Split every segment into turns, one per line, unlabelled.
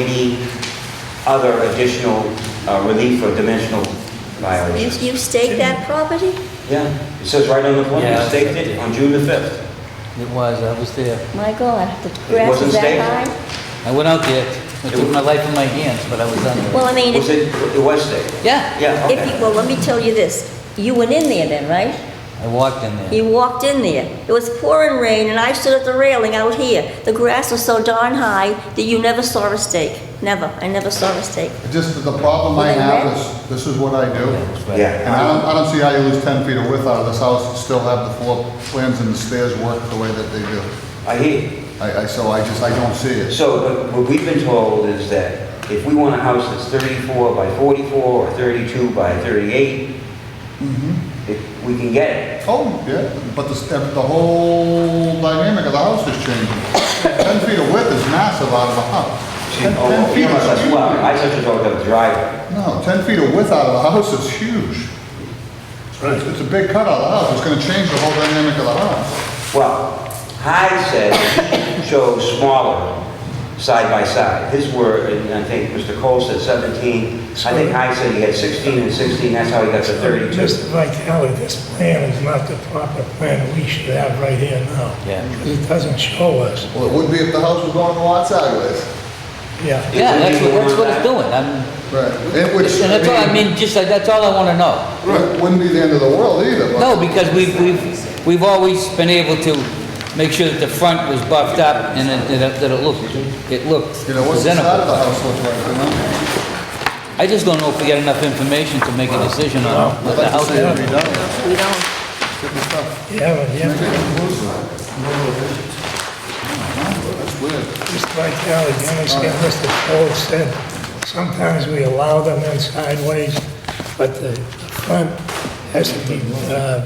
any other additional uh, relief or dimensional
You,
violations.
you staked that property?
Yeah, it says right on the plan,
Yeah.
you staked it on June the 5th.
It was, I was there.
My God, the grass
wasn't
is that
staked?
high?
I went out there, I took my life in my hands, but I was under.
Well, I mean,
Was
if,
it, it was staked?
Yeah,
Yeah,
if
okay.
you, well, let me tell you this. You went in there then, right?
I walked in there.
You walked in there. It was pouring rain and I stood at the railing out here. The grass was so darn high that you never saw a stake. Never. I never saw a stake.
Just the problem I have is, this is what I do. And I
Yeah.
don't, I don't see how you lose 10 feet of width out of this house and still have the floor plans and the stairs work the way that they do.
I hear you.
I, I, so I just, I don't see it.
So but what we've been told is that if we want a house that's 34 by 44 or 32 by 38, if we can get it.
Oh, yeah, but the, step- the whole dynamic of the house is changing. 10 feet of width is massive out of a house.
She-
10
oh,
10 feet
you know,
is
that's-
huge.
well, I such a dog that was driving.
No, 10 feet of width out of a house is huge. It's it's a big cut out of the house, it's gonna change the whole dynamic of the house.
Well, Hyde said he chose smaller side by side. His were, and I think Mr. Cole said 17. I think Hyde said he had 16 and 16, that's how he got to 32.
Mr. Vitale, this plan is not the proper plan we should have right here now.
Yeah.
It doesn't show us,
Well, it would be if the house was going a lot sideways.
yeah.
Yeah, that's what, that's what it's doing. I'm,
Right. And
and
which,
that's all, I mean, just, like, that's all I wanna know.
Right, wouldn't be the end of the world either, but.
No, because we've, we've, we've always been able to make sure that the front was buffed up and it- that it, that it looked, it looked
You know, what's the side of
presentable.
the house look like, you know?
I just don't know if we got enough information to make a decision on what
I'd
the
like to
house
see it
is.
redone.
We don't.
Good stuff.
You haven't, you haven't,
That's weird.
Mr. Vitale, you understand Mr. Cole said, sometimes we allow them in sideways, but the front has to be, uh,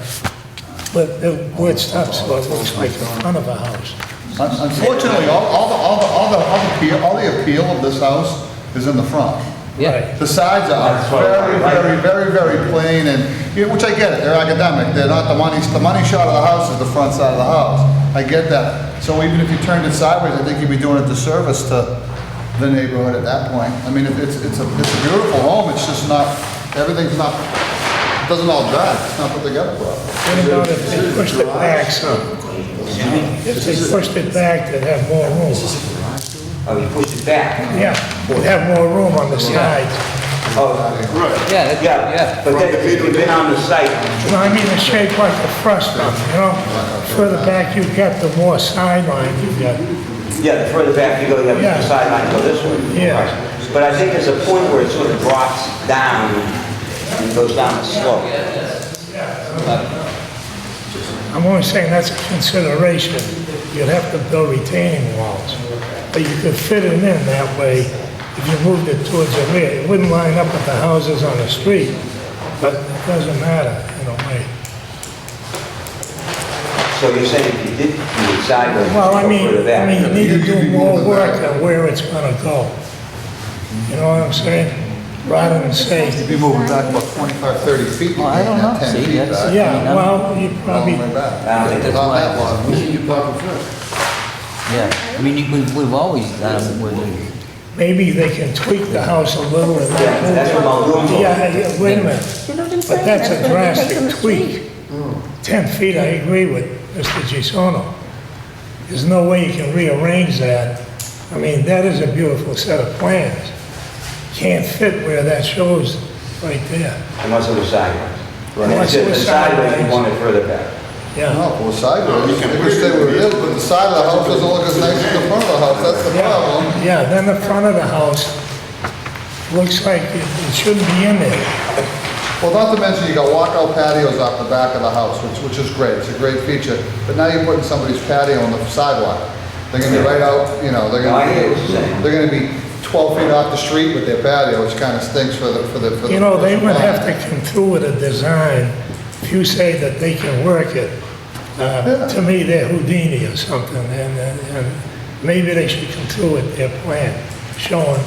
but the wood stops, so it looks like the front of a house.
Un- Unfortunately, all, all the, all the, all the, all the appeal, all the appeal of this house is in the front.
Yeah,
The sides
That's
are
what I
very, very,
like.
very, very plain and, you know, which I get it, they're academic, they're not the money, the money shot of the house is the front side of the house. I get that. So even if you turned it sideways, I think you'd be doing a disservice to the neighborhood at that point. I mean, it- it's, it's a, it's a beautiful home, it's just not, everything's not, it doesn't all jive, it's not put together well.
What about if they pushed it back some? If they pushed it back, they'd have more room.
Oh, you pushed it back.
Yeah, we'd have more room on the sides.
Oh,
yeah, that's-
yeah,
yeah.
but then if you've been on the site,
No, I mean the shape like the first one, you know? Further back you get, the more sideline you get.
yeah, the further back you go, you have
Yeah.
the sideline go this way.
Yeah.
But I think there's a point where it sort of drops down and goes down the slope.
I'm only saying that's a consideration. You'd have to build retaining walls, but you could fit it in that way if you moved it towards the rear. It wouldn't line up with the houses on the street, but it doesn't matter in a way.
So you're saying if you did do it sideways, you
Well, I
go
mean,
further
I mean, you
back?
need to do more work on where it's gonna go. You know what I'm saying? Rather than say,
You'd be moving back about 25, 30 feet.
Well, I don't know.
Ten
See,
feet
that's-
back.
yeah, well, you
All the
probably,
way back.
I don't think
that's
Not
why-
that long. You're talking first.
Yeah, I mean, you- we've, we've always done, it with-
Maybe they can tweak the house a little and
Yeah, that's what
not
I'm
move
going
it.
for.
Yeah, yeah, wait a minute,
You know what I'm saying?
but that's a
what they take from
drastic
the
tweak.
street.
Ten feet, I agree with Mr. Gisono. There's no way you can rearrange that. I mean, that is a beautiful set of plans. Can't fit where that shows right there.
Unless it was sideways.
Right.
If it was sideways, you want it further back.
Yeah,
No, well, sideways, I wish they were real, but the side of the house doesn't look as nice as the front of the house, that's the problem.
yeah, yeah, then the front of the house looks like it it shouldn't be in there.
Well, not to mention, you got walkout patios off the back of the house, which, which is great, it's a great feature, but now you're putting somebody's patio on the sidewalk. They're gonna be right out, you know, they're
No, I hear what you're saying.
gonna, they're gonna be twelve feet off the street with their patio, which kinda stinks for the, for the. for the
You know, they would
personal
have
line.
to come through with a design. If you say that they can work it, uh, to me, they're Houdini or something, and, and- and maybe they should come through with their plan, showing,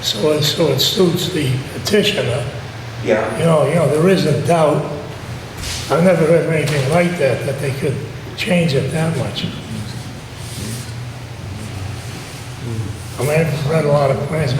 so it, so it suits the petitioner.
Yeah.
You know, you know, there is a doubt. I've never heard of anything like that, that they could change it that much. I'm I've read a lot of plans,